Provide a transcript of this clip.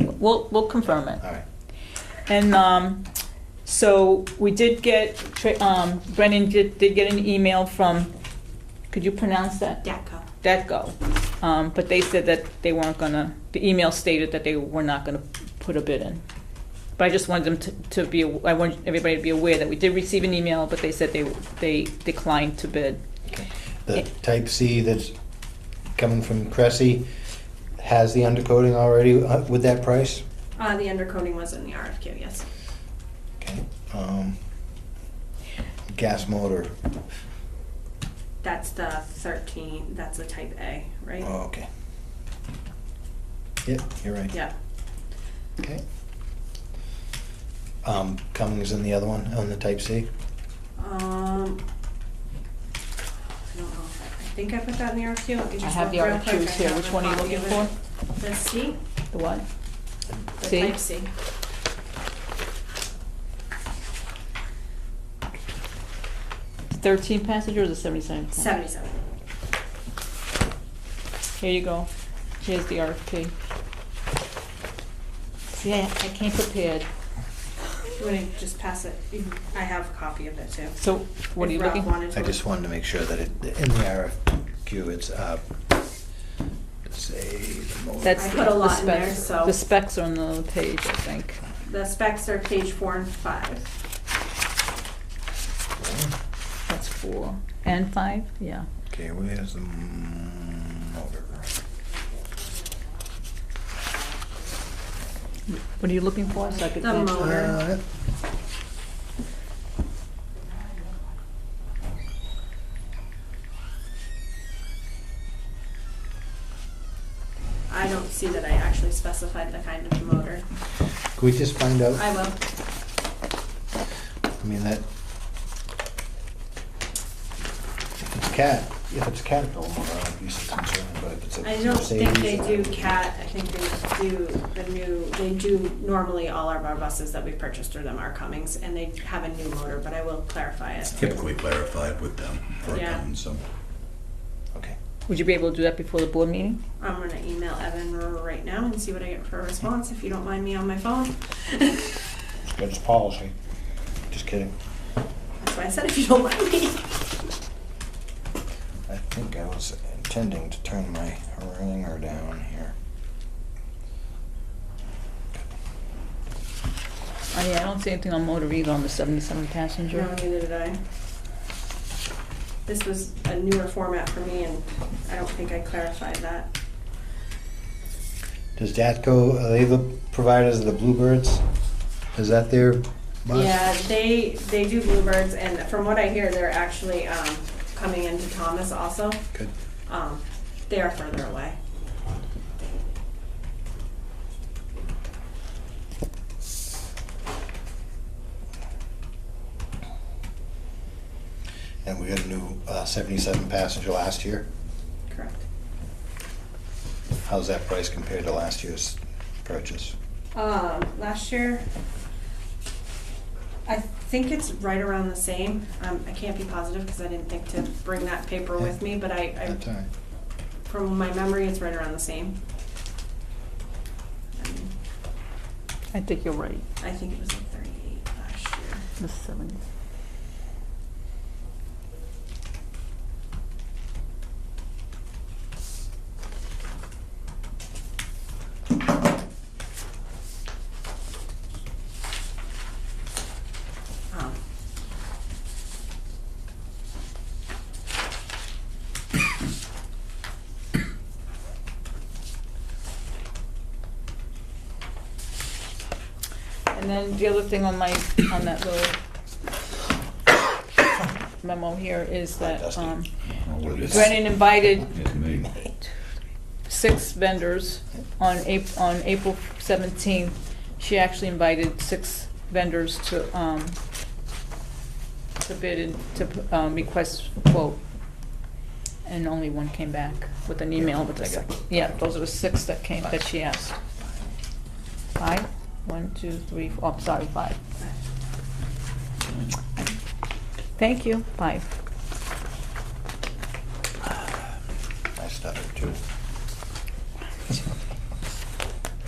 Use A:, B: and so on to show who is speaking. A: We'll, we'll confirm it.
B: All right.
A: And um, so we did get, Tra- um, Brendan did, did get an email from, could you pronounce that?
C: DACO.
A: Detco. Um, but they said that they weren't gonna, the email stated that they were not gonna put a bid in. But I just wanted them to, to be, aw- I want everybody to be aware that we did receive an email, but they said they, they declined to bid.
B: Okay. The
A: Yeah.
B: type C that's coming from Cressy has the undercoating already uh, with that price?
C: Uh, the undercoating was in the RFQ, yes.
B: Okay. Um, Gas motor,
C: That's the 13, that's the type A, right?
B: oh, okay. Yep, you're right.
C: Yeah.
B: Okay. Um, Cummings and the other one on the type C?
C: Um, I don't know. if I I think I put that in the RFQ. Let me
A: I
C: just
A: have
C: look
A: the
C: real quick.
A: RFQs
C: I
A: here,
C: have
A: which
C: a
A: one are you
C: copy
A: looking
C: of
A: for?
C: it. The C,
A: The what?
C: the
A: C?
C: type C.
A: Thirteen passenger or the seventy-seven?
C: 77.
A: Here you go. Here's the RFP. See, I I came prepared.
C: You want to just pass it? You- I have a copy of it too.
A: So what are
C: If
A: you
C: Ralph
A: looking?
C: wanted to-
B: I just wanted to make sure that it, in the RFQ, it's, uh, say, the motor.
A: That's
C: I
A: the
C: put a
A: the
C: lot in there,
A: specs.
C: so-
A: The specs are on the other page, I think.
C: The specs are page four and five.
A: That's four. And five? Yeah.
B: Okay, where's the motor?
A: What are you looking for? So I could
C: The
A: go-
C: mo-
B: Uh,
C: Motor. I don't see that I actually specified the kind of motor.
B: Can we just find out?
C: I will.
B: I mean, that. If it's cat, oh, if it's Caterpillar, I'd be so concerned, but if it's a
C: I don't think they do
B: Mercedes um, or-
C: CAT, I think they do the new, they do normally all of our buses that we purchased through them are Cummings, and they have a new motor, but I will clarify it.
D: typically clarified with them for
C: Yeah.
D: accounting, so.
B: Okay,
A: Would you be able to do that before the board meeting?
C: I'm gonna email Evan right now and see what I get for a response, if you don't mind me on my phone.
B: but it's policy. Just kidding.
C: That's why I said if you don't mind me.
B: I think I was intending to turn my ringer down here.
A: Oh, yeah, I don't see anything on motor either on the seventy-seven
C: No,
A: passenger.
C: neither did I. This was a newer format for me, and I don't think I clarified that.
B: Does Datco, are they the providers of the Bluebirds? Is that their bus?
C: Yeah, they, they do Bluebirds, and from what I hear, they're actually, um, coming into Thomas also.
B: Good.
C: Um, they are further away.
B: And we got a new uh, 77 passenger last year.
C: Correct.
B: How's that price compared to last year's purchase?
C: Um, last year, I think it's right around the same. Um, I can't be positive because I didn't think to bring that paper with me, but I,
B: That's all
C: I,
B: right.
C: from my memory, it's right around the same. I mean,
A: I think you're right,
C: I think it was like thirty-eight last year.
A: the seventy.
C: Um,
A: And then the other thing on my, on that little memo here is that,
B: Dusty.
A: um,
D: what it is.
A: Brennan invited
D: It's me.
A: six vendors on April, on April seventeenth. She actually invited six vendors to, um, to bid and to, um, request quote. And only one came back with an email, but I got, yeah, those are the six that came, that she asked. Five? One, two, three, four, oh, sorry, five. Thank you, five.
B: I stuttered too.